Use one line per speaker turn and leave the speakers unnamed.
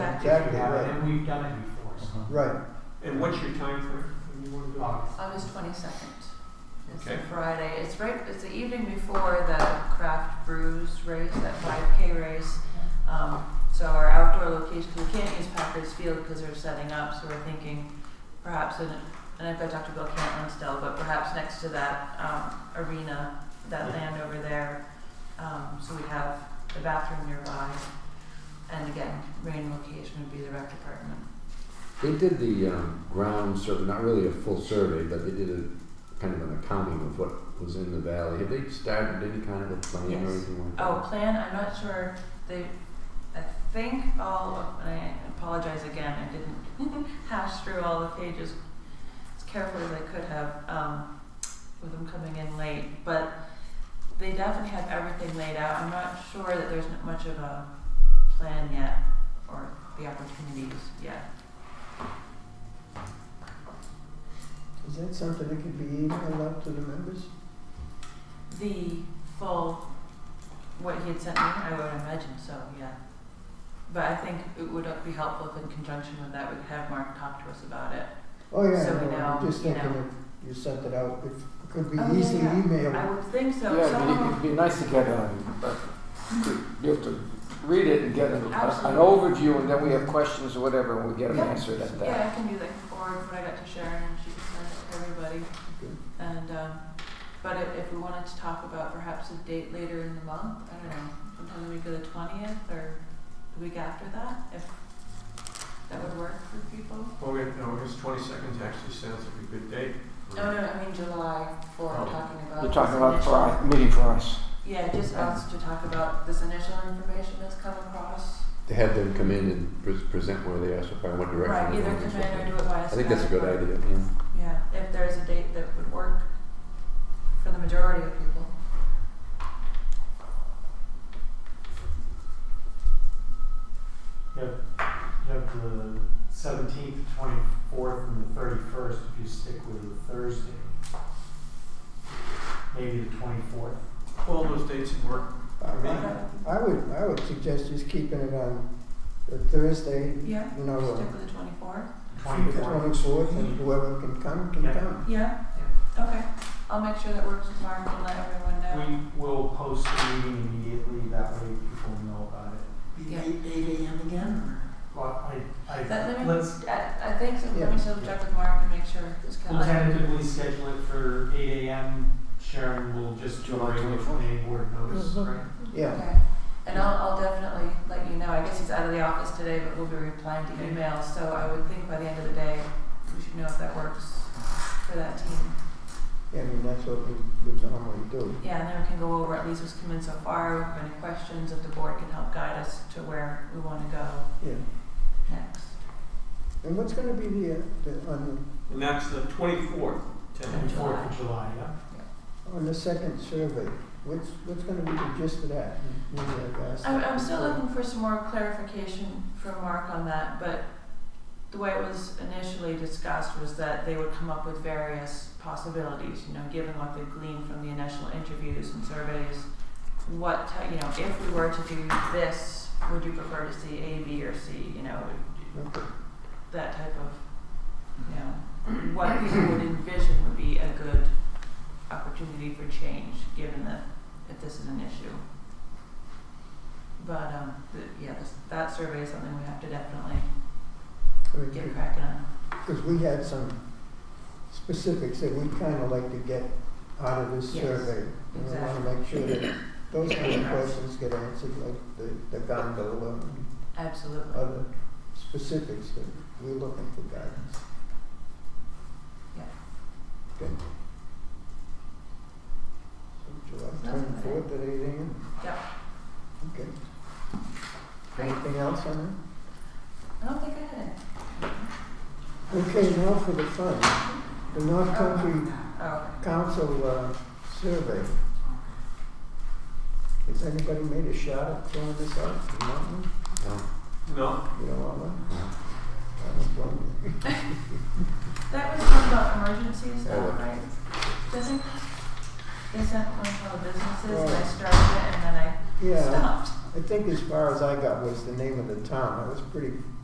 Exactly,
Yeah, Uh-huh.
right.
And we've done it before, so.
Right,
And what's your time frame when you want to do it?
August.
August twenty-second. It's a
Okay.
Friday. It's right, it's the evening before the craft brews race, that five K race. Um, so our outdoor location, we can't use Packers Field because they're setting up, so we're thinking perhaps in, and I've got Dr. Bill Cantlin still, but perhaps next to that, um, arena, that
Yeah.
land over there. Um, so we have the bathroom nearby. And again, rain location would be the rec department.
They did the um, ground survey, not really a full survey, but they did a kind of an accounting of what was in the valley. Have they started any kind of a plan
Yes.
or anything like that?
Oh, plan, I'm not sure, they, I think all, of- and I apologize again, I didn't hash through all the pages as carefully as I could have, um, with them coming in late, but they definitely have everything laid out, I'm not sure that there's not much of a plan yet, or the opportunities yet.
is that something that could be emailed out to the members?
The full, what he had sent me, I would imagine so, yeah. But I think it would be helpful if in conjunction with that, we could have Mark talk to us about it.
Oh, yeah,
So we
no, I'm
know,
just
you
thinking
know.
if you sent it out, if it could be
Oh, yeah,
easily
yeah. I
emailed.
would think so.
Yeah, it'd be,
Someone-
it'd be nice to get a, a- you have to read it and get an, an
Absolutely.
overview, and then we have questions or whatever, and we get them
Yeah.
answered at that.
Yeah, I can do like forward what I got to Sharon and she can send it to everybody.
Good.
And, um, but if, if we wanted to talk about perhaps a date later in the month, I don't know, sometime the week of the twentieth or the week after that, if that would work for people.
August, August twenty-second actually sounds like a good date.
No, no, I mean July for
Oh.
talking about.
You're
this
talking about for our,
initial-
meeting for us.
Yeah, just us to talk about this initial information that's come across.
To have them come in and pre- present where they are, so far, what direction
Right,
they're
either
going. and so
come in or
forth.
do it via
I think that's a good
Skype or-
idea. Yeah.
Yeah, if there's a date that would work for the majority of people.
You have, you have the seventeenth, twenty-fourth, and the thirty-first, if you stick with the Thursday. Maybe the twenty-fourth.
All those dates would work.
I
mean-
I- I would, I would suggest just keeping it on the Thursday,
Yeah,
you know, uh,
stick with the twenty-fourth.
the twenty-fourth, and whoever can come, can
Yeah.
come.
Yeah, okay. I'll make sure that works with Mark and let everyone know.
We will post the meeting immediately, that way people know about it.
Yeah.
Well, I,
That- let
I,
me-
let's,
I, I think so, let
Yeah.
me still check with Mark and make sure it's
we'll
kind of.
tentatively schedule it for eight AM. Sharon will just do a
July
regular
24th.
planning board notice,
Mhm.
right?
Yeah,
Okay, and I'll, I'll definitely let you know. I guess he's out of the office today, but we'll be replying to
Okay.
emails, so I would think by the end of the day, we should know if that works for that team.
yeah, I mean, that's what we, we normally do.
Yeah, and then we can go over at least what's come in so far, if any questions, if the board can help guide us to where we wanna go
Yeah,
next.
and what's gonna be the, uh, the, on
And that's the twenty-fourth,
Twenty-fourth of July, yeah?
the, on the second survey, what's, what's gonna be the gist of that? Maybe I've asked
I'm,
that
I'm still
before.
looking for some more clarification from Mark on that, but the way it was initially discussed was that they would come up with various possibilities, you know, given what they gleaned from the initial interviews and surveys. What, ti- you know, if we were to do this, would you prefer to see A, B, or C, you know,
Okay.
that type of, you know, what people would envision would be a good opportunity for change, given that if this is an issue. But, um, the, yeah, this, that survey is something we have to definitely
I mean,
get cracking on.
Because we had some specifics that we'd kind of like to get out of this
Yes,
survey. And we want
exactly.
to make sure that those kind of questions get answered, like the, the gondola and
Absolutely,
other specifics that we're looking for guidance.
Yeah.
Good. So July twenty-fourth at eight AM?
yeah.
Okay. Anything else on
I don't think I had it.
that? Okay, now for the fun. The North Country
Oh,
council uh, survey. Has anybody made a shot at throwing this out? You want one?
No.
No,
You don't want one?
No.
I don't blame you.
that was one about emergencies,
Oh,
though,
okay.
right? Doesn't, they sent one to all the businesses, and I
Right.
started it, and then I
Yeah,
stopped.
I think as far as I got was the name of the town. That was pretty